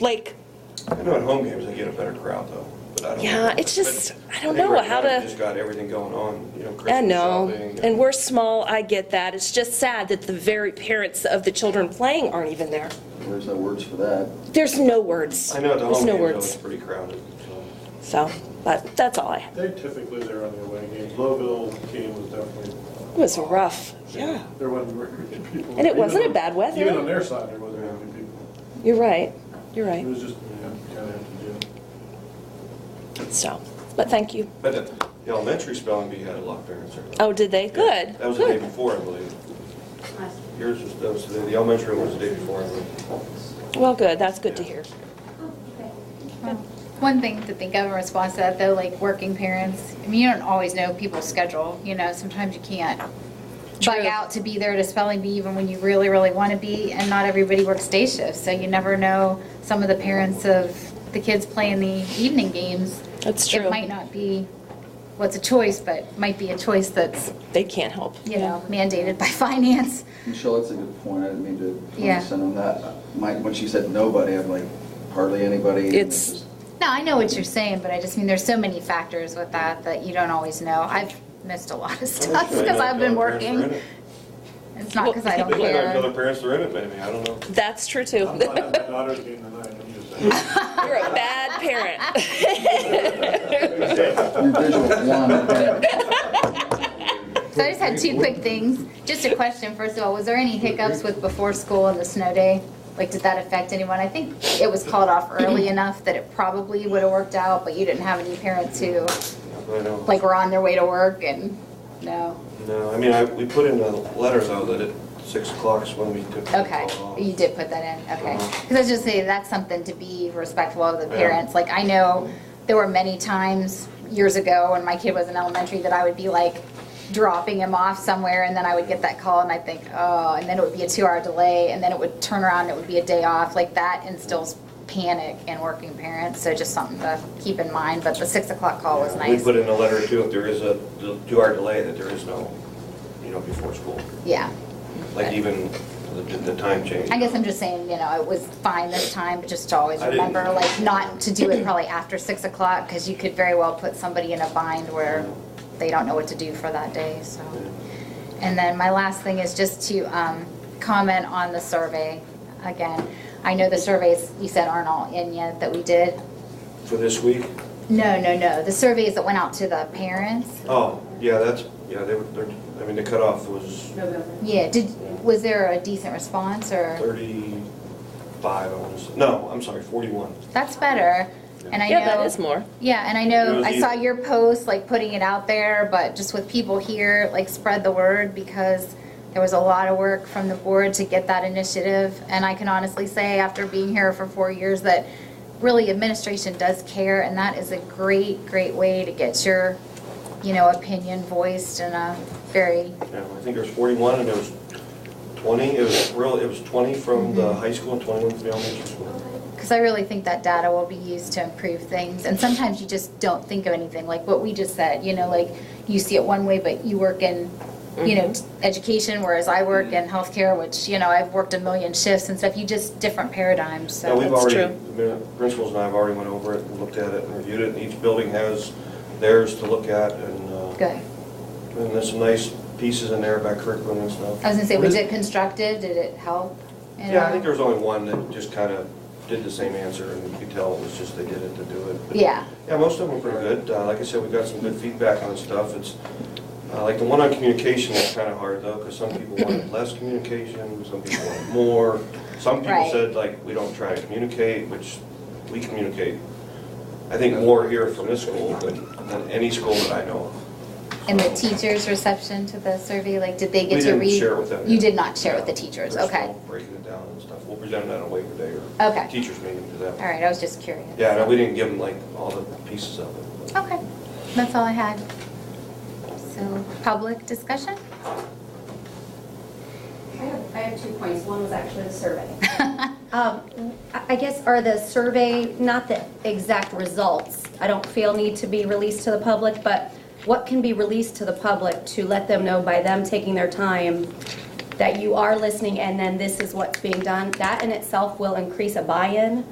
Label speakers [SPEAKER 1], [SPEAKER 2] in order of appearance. [SPEAKER 1] like,
[SPEAKER 2] I know at home games, they get a better crowd though, but I don't.
[SPEAKER 1] Yeah, it's
[SPEAKER 2] but
[SPEAKER 1] just- I don't
[SPEAKER 2] think
[SPEAKER 1] know
[SPEAKER 2] right
[SPEAKER 1] how
[SPEAKER 2] now,
[SPEAKER 1] to-
[SPEAKER 2] you Just got everything going on, you know,
[SPEAKER 1] I
[SPEAKER 2] Christmas
[SPEAKER 1] know,
[SPEAKER 2] shopping.
[SPEAKER 1] and we're small, I get that. It's just sad that the very parents of the children playing aren't even there.
[SPEAKER 3] There's no words for that.
[SPEAKER 1] There's no words.
[SPEAKER 2] I know at the
[SPEAKER 1] There's
[SPEAKER 2] home
[SPEAKER 1] no
[SPEAKER 2] games, though, it's
[SPEAKER 1] words.
[SPEAKER 2] pretty crowded. so.
[SPEAKER 1] So, but that's all I,
[SPEAKER 4] They're typically there on the away games. Louisville game was definitely,
[SPEAKER 1] it was rough. Yeah,
[SPEAKER 4] there wasn't very many people.
[SPEAKER 1] And it wasn't
[SPEAKER 4] Even
[SPEAKER 1] a bad
[SPEAKER 4] on-
[SPEAKER 1] weather.
[SPEAKER 4] Even on their side, there wasn't very many people.
[SPEAKER 1] you're right, you're
[SPEAKER 4] It
[SPEAKER 1] right.
[SPEAKER 4] was just, you know, kind of have to do. it.
[SPEAKER 1] So, but thank you.
[SPEAKER 2] But at the elementary spelling bee had a lot of parents there.
[SPEAKER 1] Oh, did they? Good,
[SPEAKER 2] That was the day
[SPEAKER 1] good.
[SPEAKER 2] before, I believe. Yours was, that was, the the elementary one was the day before, I believe.
[SPEAKER 1] Well, good, that's good to hear.
[SPEAKER 5] One thing to think of in response to that, though, like working parents, I mean, you don't always know people's schedule, you know, sometimes you can't bug
[SPEAKER 1] True.
[SPEAKER 5] out to be there to spelling bee even when you really, really want to be, and not everybody works day shifts, so you never know some of the parents of the kids playing the evening games.
[SPEAKER 1] That's
[SPEAKER 5] It
[SPEAKER 1] true.
[SPEAKER 5] might not be what's a choice, but might be a choice that's,
[SPEAKER 1] They can't help.
[SPEAKER 5] you know, mandated by finance.
[SPEAKER 3] Michelle, that's a good point. I didn't mean to
[SPEAKER 5] Yeah.
[SPEAKER 3] condescend on that. My, when she said nobody, I'm like, hardly anybody. and
[SPEAKER 1] It's-
[SPEAKER 3] just-
[SPEAKER 5] No, I know what you're saying, but I just mean, there's so many factors with that that you don't always know. I've missed a lot of stuff because I've been working. It's not because I
[SPEAKER 2] They
[SPEAKER 5] don't
[SPEAKER 2] might not know their
[SPEAKER 5] care.
[SPEAKER 2] parents are in it, maybe, I don't know.
[SPEAKER 1] That's true too.
[SPEAKER 4] I'm not at my daughter's game tonight, I'm just saying.
[SPEAKER 1] You're a bad parent.
[SPEAKER 3] Your visual one.
[SPEAKER 5] So I just had two quick things. Just a question, first of all, was there any hiccups with before school and the snow day? Like, did that affect anyone? I think it was called off early enough that it probably would have worked out, but you didn't have any parents who,
[SPEAKER 2] I know.
[SPEAKER 5] like, were on their way to work and, no?
[SPEAKER 2] No, I mean, I, we put in the letter though that at six o'clock is when we took. the
[SPEAKER 5] Okay,
[SPEAKER 2] call off.
[SPEAKER 5] you did put that in, okay.
[SPEAKER 2] Uh-huh.
[SPEAKER 5] Because I was just saying, that's something to be respectful of the
[SPEAKER 2] Yeah.
[SPEAKER 5] parents. Like, I know there were many times years ago when my kid was in elementary that I would be like dropping him off somewhere and then I would get that call and I'd think, oh, and then it would be a two-hour delay and then it would turn around and it would be a day off. Like, that instills panic in working parents, so just something to keep in mind. But the six o'clock call was
[SPEAKER 2] We
[SPEAKER 5] nice.
[SPEAKER 2] put in a letter too, if there is a two-hour delay, that there is no, you know, before school.
[SPEAKER 5] Yeah.
[SPEAKER 2] Like even the, the time change.
[SPEAKER 5] I guess I'm just saying, you know, it was fine this time, but just to always
[SPEAKER 2] I didn't-
[SPEAKER 5] remember, like, not to do it probably after six o'clock, because you could very well put somebody in a bind where they don't know what to do for that day, so. And then my last thing is just to um, comment on the survey again. I know the surveys, you said aren't all in yet that we did.
[SPEAKER 2] For this week?
[SPEAKER 5] No, no, no, the surveys that went out to the parents.
[SPEAKER 2] Oh, yeah, that's, yeah, they were, they're- I mean, the cutoff was
[SPEAKER 5] Yeah, did, was there a decent response, or?
[SPEAKER 2] thirty-five, I want to say, no, I'm sorry, forty-one.
[SPEAKER 5] That's better, and I know.
[SPEAKER 1] Yeah, that is more.
[SPEAKER 5] Yeah, and I
[SPEAKER 2] It
[SPEAKER 5] know,
[SPEAKER 2] was
[SPEAKER 5] I saw
[SPEAKER 2] easy.
[SPEAKER 5] your post, like, putting it out there, but just with people here, like, spread the word, because there was a lot of work from the board to get that initiative, and I can honestly say, after being here for four years, that really administration does care, and that is a great, great way to get your, you know, opinion voiced in a very,
[SPEAKER 2] Yeah, I think there was forty-one and it was twenty, it was real, it was twenty from the
[SPEAKER 5] Mm-hmm.
[SPEAKER 2] high school and twenty-one from the elementary school.
[SPEAKER 5] because I really think that data will be used to improve things, and sometimes you just don't think of anything, like what we just said, you know, like, you see it one way, but you work in, you know, t-
[SPEAKER 2] Mm-hmm.
[SPEAKER 5] education, whereas I work in healthcare, which, you know, I've worked a million shifts and stuff, you just, different paradigms,
[SPEAKER 2] Now,
[SPEAKER 5] so.
[SPEAKER 2] we've
[SPEAKER 1] That's
[SPEAKER 2] already,
[SPEAKER 1] true.
[SPEAKER 2] the min- principals and I have already went over it and looked at it and reviewed it, and each building has theirs to look at and, uh,
[SPEAKER 5] Good.
[SPEAKER 2] and there's some nice pieces in there about curriculum and stuff.
[SPEAKER 5] I was gonna say, was it constructive, did it help? at
[SPEAKER 2] Yeah, I
[SPEAKER 5] all?
[SPEAKER 2] think there was only one that just kind of did the same answer, and you could tell it was just they did it to do it. But-
[SPEAKER 5] Yeah.
[SPEAKER 2] Yeah, most of them were pretty good. Uh, Like I said, we got some good feedback on stuff. It's, uh, like the one on communication is kind of hard, though, because some people wanted less communication, some people wanted more. Some people
[SPEAKER 5] Right.
[SPEAKER 2] said, like, we don't try to communicate, which we communicate. I think more here from this school than, than any school that I know
[SPEAKER 5] And the teachers' reception to the survey, like, did they
[SPEAKER 2] We
[SPEAKER 5] get to read?
[SPEAKER 2] didn't share with them.
[SPEAKER 5] You did not share with the
[SPEAKER 2] Yeah.
[SPEAKER 5] teachers,
[SPEAKER 2] We're
[SPEAKER 5] okay.
[SPEAKER 2] still Breaking it down and stuff. We'll present it at a later day
[SPEAKER 5] Okay.
[SPEAKER 2] or teachers meeting to that.
[SPEAKER 5] All right, I was just curious.
[SPEAKER 2] Yeah, no, we didn't give them like all the pieces of it.
[SPEAKER 5] Okay, that's all I had. So, public discussion?
[SPEAKER 6] I have, I have two points. One was actually the survey. Um, I I guess, are the survey, not the exact results, I don't feel need to be released to the public, but what can be released to the public to let them know by them taking their time that you are listening and then this is what's being done? That in itself will increase a buy-in